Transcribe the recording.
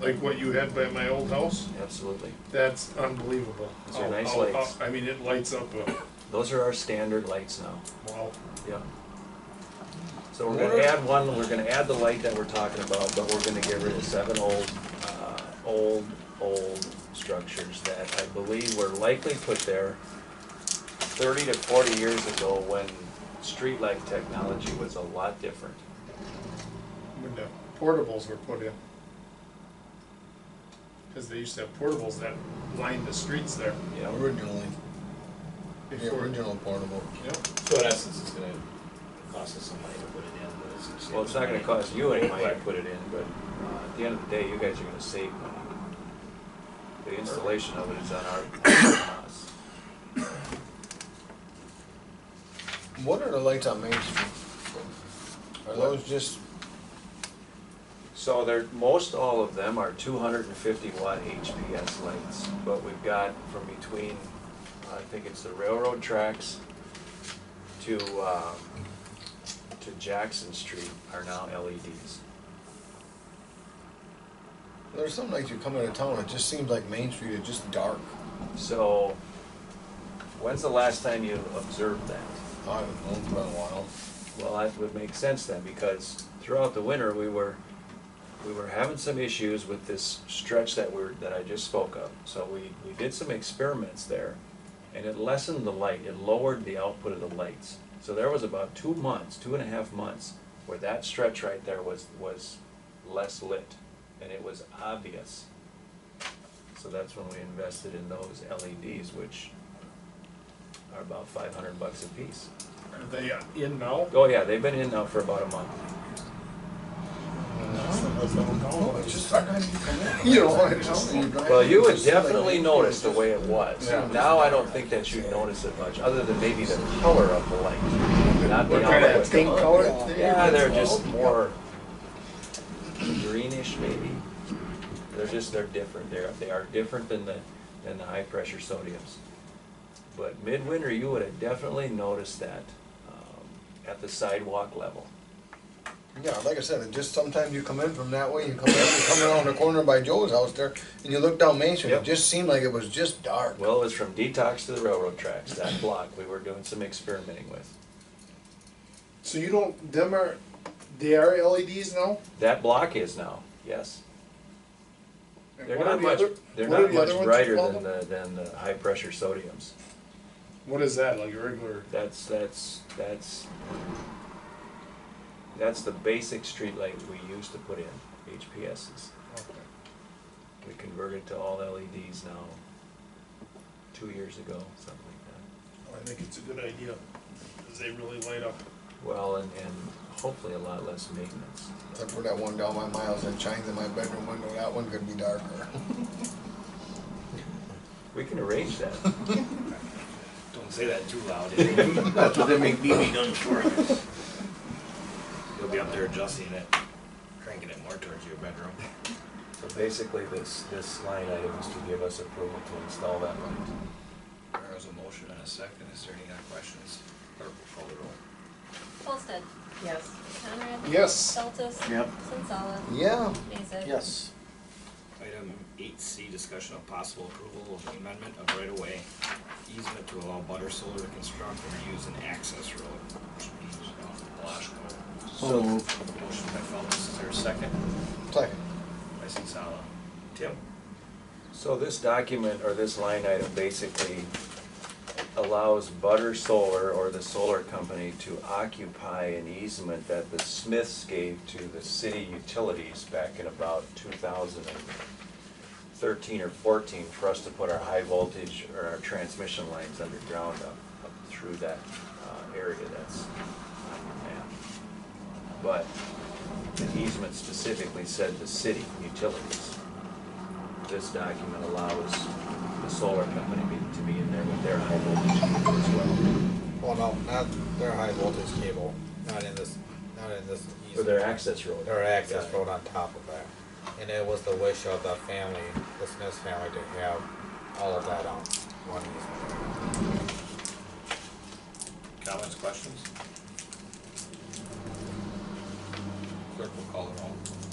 like what you had by my old house, Absolutely. that's unbelievable. Those are How- nice how- how- lights. I mean, it lights up, uh, Those are our standard lights now. wow. Yep. So we're gonna add one, we're gonna add the light that we're talking about, but we're gonna get rid of seven old, uh, old, old structures that I believe were likely put there thirty to forty years ago when streetlight technology was a lot different. When the portables were put in. Cause they used to have portables that lined the streets there Yeah, Originally, the before. original portable. Yep. So in essence, it's gonna cost us some money to put it in, but it's. just- well, it's not gonna cost you any money to put it in, but, uh, at the end of the day, you guys are gonna save money. The installation of it is on our, on us. What are the lights on Main Street? Are those just, So there, most all of them are two hundred and fifty watt HPS lights, but we've got from between, I think it's the railroad tracks to, uh, to Jackson Street are now E LEDs. there's some lights you come into town, it just seems like Main Street is just dark. So, when's the last time you observed that? I haven't known for a while. Well, that would make sense then, because throughout the winter, we were, we were having some issues with this stretch that we're, that I just spoke of. So we, we did some experiments there, and it lessened the light, it lowered the output of the lights. So there was about two months, two and a half months, where that stretch right there was, was less lit, and it was obvious. So that's when we invested in those LEDs, which are about five hundred bucks a piece. Are they uh, in now? Oh yeah, they've been in now for about a month. Oh, it's just dark. You know, I just. you drive- Well, you would it's just like- definitely notice the way it was. Yeah. Now I don't think that you notice it much, other than maybe the color of the light, not the What kind of output. thing? Oh, color? yeah, there Yeah, it is. they're just more greenish maybe. They're just, they're different, they're, they are different than the, than the high pressure sodiums. But midwinter, you would have definitely noticed that, um, at the sidewalk level. Yeah, like I said, it just sometimes you come in from that way, you come in, you come around the corner by Joe's house there, and you look down Main Street, Yep. it just seemed like it was just dark. Well, it was from detox to the railroad tracks, that block we were doing some experimenting with. So you don't, them are, they are LEDs now? That block is now, yes. And They're what are not the much, other- they're what are not the much other ones you brighter call than them? the, than the high pressure sodiums. What is that, like a regular? That's, that's, that's, that's the basic streetlight we used to put in, HPSs. Oh, We converted to all LEDs now, two years ago, something like I think it's a good idea, cause they really light up. that. Well, and, and hopefully a lot less maintenance. Except for that one down by Miles that shines in my bedroom window, that one could be darker. We can arrange that. Don't say that too loud. That's what they make BB guns for. You'll be up there adjusting it, cranking it more towards your bedroom. So basically, this, this line item is to give us approval to install that light. There was a motion and a second, is there any other questions? Clerk will call the roll. Holsted. Yes. Conrad. Yes, Feltes. Yep. Sensala. Yeah, Mason. Yes. Item eight C, discussion of possible approval of the amendment of right of way easement to allow butter solar to construct or use an access road. which means, uh, Washco. So moved. Motion by Feltes, is there a second? second. By Sensala. Tim? So this document or this line item basically allows Butter Solar or the solar company to occupy an easement that the Smiths gave to the city utilities back in about two thousand and thirteen or fourteen for us to put our high voltage or our transmission lines underground up, up through that uh, area that's on the map. But the easement specifically said the city utilities this document allows the solar company be- to be in there with their high voltage cable as well, Well, no, not their high voltage cable, not in this, not in this. for their access road. Their access road on top of that. And it was the wish of the family, the Smith family, to have all of that on one easement. Comments, questions? Clerk will call the roll.